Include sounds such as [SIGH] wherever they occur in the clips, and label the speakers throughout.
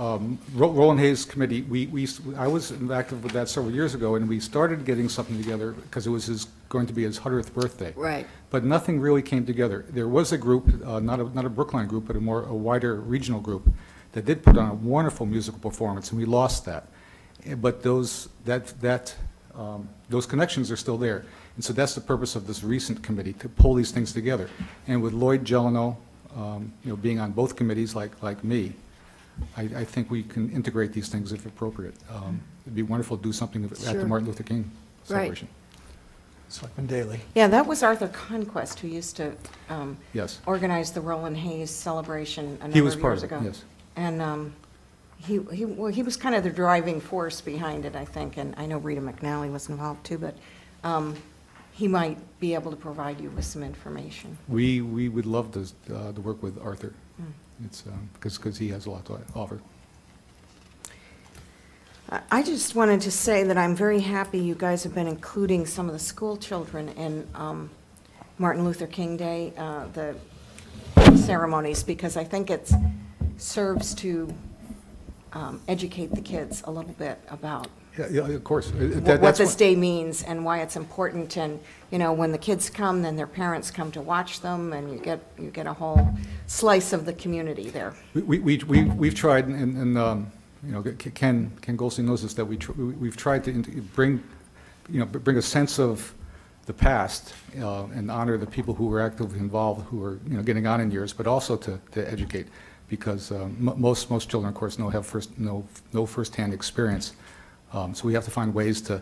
Speaker 1: um, Ro- Roland Hayes Committee, we, we, used to- I was active with that several years ago, and we started getting something together because it was his, going to be his 100th birthday.
Speaker 2: Right.
Speaker 1: But nothing really came together. There was a group, uh, not a, not a Brookline group, but a more, a wider regional group that did put on a wonderful musical performance, and we lost that. Eh, But those, that, that, um, those connections are still there. And so that's the purpose of this recent committee, to pull these things together. And with Lloyd Gelano, um, you know, being on both committees like, like me, I, I think we can integrate these things if appropriate. Um, It'd be wonderful to do something at the
Speaker 2: Sure.
Speaker 1: Martin Luther King
Speaker 2: Right.
Speaker 1: celebration.
Speaker 3: Selectman Daley.
Speaker 4: Yeah, that was Arthur Conquest who used to um,
Speaker 1: Yes.
Speaker 4: organize the Roland Hayes celebration a
Speaker 1: He
Speaker 4: number
Speaker 1: was
Speaker 4: of
Speaker 1: part
Speaker 4: years
Speaker 1: of it,
Speaker 4: ago.
Speaker 1: yes.
Speaker 4: And um, he, he, well, he was kind of the driving force behind it, I think, and I know Rita McNally was involved too, but um, he might be able to provide you with some information.
Speaker 1: We, we would love to, uh, to work with Arthur.
Speaker 4: Hmm.
Speaker 1: It's, because, because he has a lot to offer.
Speaker 4: I- I just wanted to say that I'm very happy you guys have been including some of the school children in um, Martin Luther King Day, uh, the ceremonies, because I think it serves to um, educate the kids a little bit about
Speaker 1: Yeah, yeah, of course. Uh,
Speaker 4: wh-
Speaker 1: that-
Speaker 4: what
Speaker 1: that's
Speaker 4: this day means and why it's important. And, you know, when the kids come, then their parents come to watch them, and you get, you get a whole slice of the community there.
Speaker 1: We, we, we- we, we've tried, and, and, um, you know, Ken, Ken Goldstein knows this, that we, tr- we- we've tried to int- bring, you know, bring a sense of the past uh, and honor the people who were actively involved, who are, you know, getting on in years, but also to, to educate, because um, mo- most, most children, of course, no have first, no, no firsthand experience. Um, So we have to find ways to,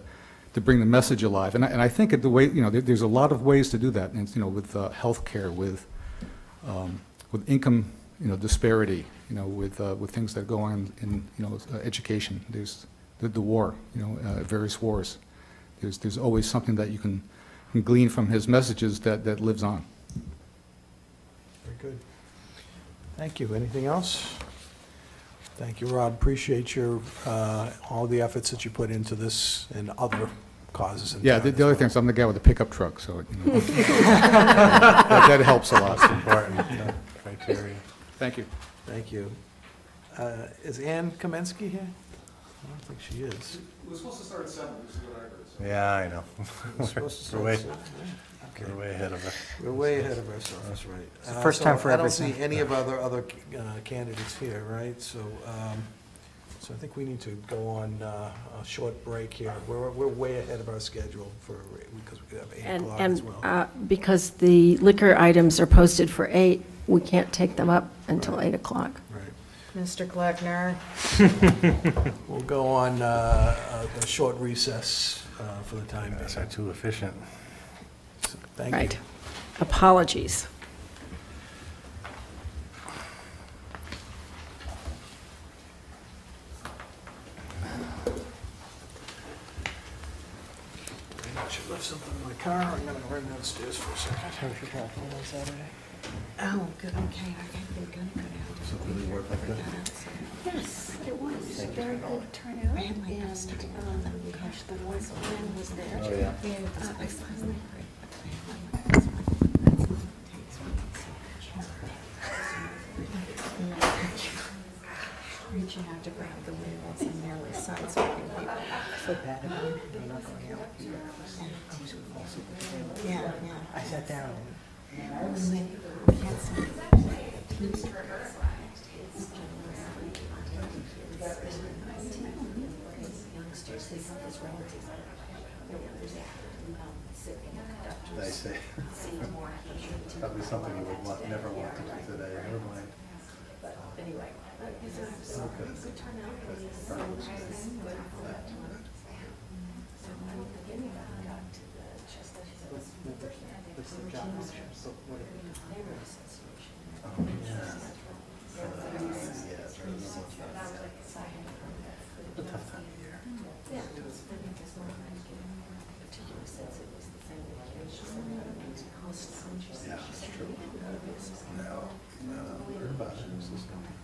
Speaker 1: to bring the message alive. And I, and I think that the way, you know, there, there's a lot of ways to do that, and, it's, you know, with uh, healthcare, with, um, with income, you know, disparity, you know, with, uh, with things that go on in, you know, uh, education, there's the, the war, you know, uh, various wars. There's, there's always something that you can glean from his messages that, that lives on.
Speaker 3: Very good. Thank you. Anything else? Thank you, Rob. Appreciate your, uh, all the efforts that you put into this and other causes. in
Speaker 1: Yeah,
Speaker 3: town
Speaker 1: the,
Speaker 3: as
Speaker 1: the other
Speaker 3: well.
Speaker 1: thing is I'm the guy with the pickup truck, so, it, you know. [LAUGHS] That that helps a lot.
Speaker 3: Important uh, criteria.
Speaker 1: Thank you.
Speaker 3: Thank you. Uh, Is Ann Kaminsky here? I don't think she is.
Speaker 1: We're supposed to start at seven, this is what I heard,
Speaker 5: Yeah, I know.
Speaker 3: We're supposed to
Speaker 5: We're way-
Speaker 3: start at seven. Okay.
Speaker 5: We're way ahead of us.
Speaker 3: We're way ahead of ourselves, that's right.
Speaker 6: It's the
Speaker 3: Uh,
Speaker 6: first
Speaker 3: so
Speaker 6: time for
Speaker 3: I don't
Speaker 6: everything.
Speaker 3: see any of other, other uh, candidates here, right? So, um, so I think we need to go on uh, a short break here. We're, we're way ahead of our schedule for, because we have eight
Speaker 7: And,
Speaker 3: o'clock as
Speaker 7: and
Speaker 3: well.
Speaker 7: uh, because the liquor items are posted for eight, we can't take them up until eight o'clock.
Speaker 3: Right.
Speaker 4: Mr. Gluckner?
Speaker 3: We'll go on uh, a a short recess uh, for the time being.
Speaker 5: Guys
Speaker 3: So
Speaker 5: are too efficient.
Speaker 3: Thank you.
Speaker 7: Right. Apologies.
Speaker 3: I should left something in my car. I'm gonna run downstairs for a second.
Speaker 4: Oh, good, okay, I think they're gonna go down.
Speaker 5: Does it really work like that?
Speaker 8: Yes, it was a very good turnout, and, um, gosh, the voice man was there.
Speaker 5: Oh, yeah.
Speaker 8: Uh, I finally
Speaker 4: Reaching out to grab the wheels and nearly sideswiping people.
Speaker 6: So bad about it. I'm not going out. I was also-
Speaker 4: Yeah,
Speaker 6: I sat down.
Speaker 5: I say. Probably something you would want, never want to do today, never mind. Yeah, it's true. No, no, heard about it, it was just-